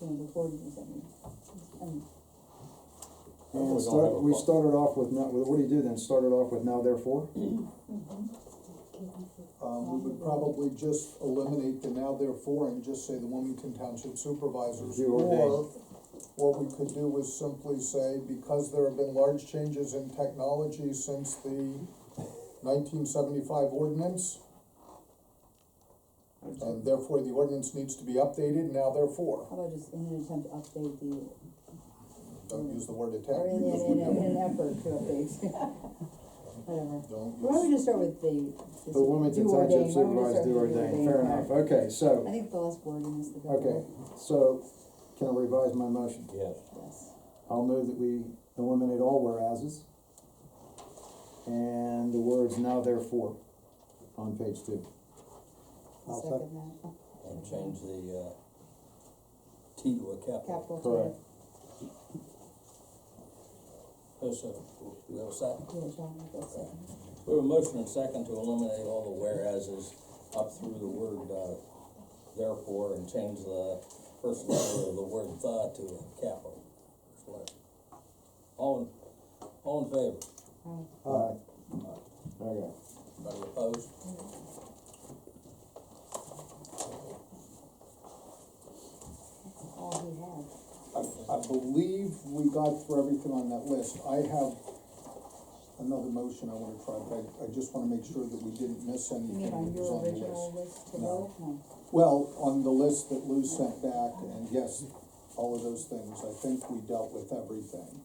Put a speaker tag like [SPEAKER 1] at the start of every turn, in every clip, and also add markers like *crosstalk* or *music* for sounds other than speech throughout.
[SPEAKER 1] ordinance, I mean, and
[SPEAKER 2] And we
[SPEAKER 3] We don't have a
[SPEAKER 2] start, we
[SPEAKER 3] problem.
[SPEAKER 2] started off with now, what do you do then, started off with now therefore?
[SPEAKER 4] Um, we would probably just eliminate the now therefore and just say the Wilmington Township Supervisors.
[SPEAKER 2] You
[SPEAKER 4] Or,
[SPEAKER 2] ordain.
[SPEAKER 4] what we could do is simply say, because there have been large changes in technology since the nineteen seventy-five ordinance, and therefore the ordinance needs to be updated, now therefore,
[SPEAKER 1] how about just in an attempt to update the,
[SPEAKER 4] don't use the word
[SPEAKER 1] or
[SPEAKER 4] attempt.
[SPEAKER 1] in,
[SPEAKER 4] because
[SPEAKER 1] in,
[SPEAKER 4] we
[SPEAKER 1] in, in
[SPEAKER 4] don't-
[SPEAKER 1] an effort to
[SPEAKER 2] *laughs*
[SPEAKER 1] update, *laughs* whatever.
[SPEAKER 4] Don't
[SPEAKER 1] Why don't
[SPEAKER 4] use,
[SPEAKER 1] we just start with the, this
[SPEAKER 2] The Wilmington
[SPEAKER 1] do ordain,
[SPEAKER 2] Township
[SPEAKER 1] why don't we just
[SPEAKER 2] Supervisors
[SPEAKER 1] start
[SPEAKER 2] do
[SPEAKER 1] with
[SPEAKER 2] ordain, fair enough, okay,
[SPEAKER 1] I
[SPEAKER 2] so,
[SPEAKER 1] think the last wording is the better.
[SPEAKER 2] okay, so, can I revise my motion?
[SPEAKER 3] Yes,
[SPEAKER 1] Yes,
[SPEAKER 2] I'll move that we eliminate all whereases and the words now therefore on page two.
[SPEAKER 1] I'll
[SPEAKER 5] I'll
[SPEAKER 1] second that, Oh,
[SPEAKER 3] and change the, uh, T to a capital.
[SPEAKER 1] capital
[SPEAKER 2] Correct.
[SPEAKER 1] T,
[SPEAKER 3] Yes, sir. We have a second?
[SPEAKER 1] yeah, John, that's it.
[SPEAKER 3] We have a motion and second to eliminate all the whereases up through the word, uh, therefore, and change the first letter of the word the to a capital. First letter. All in, all in favor?
[SPEAKER 1] All right.
[SPEAKER 2] Alright. Okay,
[SPEAKER 3] Anybody opposed?
[SPEAKER 1] That's all he had.
[SPEAKER 4] I, I believe we got through everything on that list, I have another motion I wanna try, but I, I just wanna make sure that we didn't miss
[SPEAKER 1] You
[SPEAKER 4] anything
[SPEAKER 1] mean
[SPEAKER 4] that
[SPEAKER 1] on
[SPEAKER 4] was
[SPEAKER 1] your
[SPEAKER 4] on the list.
[SPEAKER 1] original list to
[SPEAKER 4] No.
[SPEAKER 1] vote? No.
[SPEAKER 4] Well, on the list that Lou sent back, and yes, all of those things, I think we dealt with everything.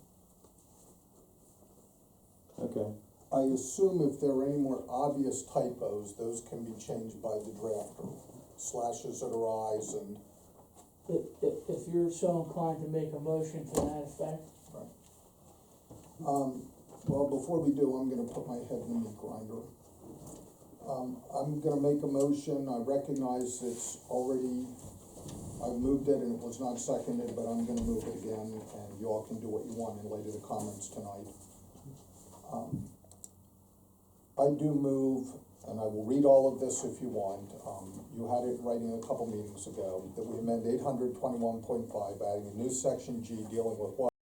[SPEAKER 2] okay,
[SPEAKER 4] I assume if there are any more obvious typos, those can be changed by the drafter, slashes that arise and,
[SPEAKER 6] If, if, if you're so inclined to make a motion to that effect,
[SPEAKER 4] um, well, before we do, I'm gonna put my head in the grinder. Um, I'm gonna make a motion, I recognize it's already, I moved it and it was not seconded, but I'm gonna move it again, and you all can do what you want in light of the comments tonight. Um, I do move, and I will read all of this if you want, um, you had it writing a couple meetings ago, that we amend eight hundred twenty-one point five, adding a new section G dealing with water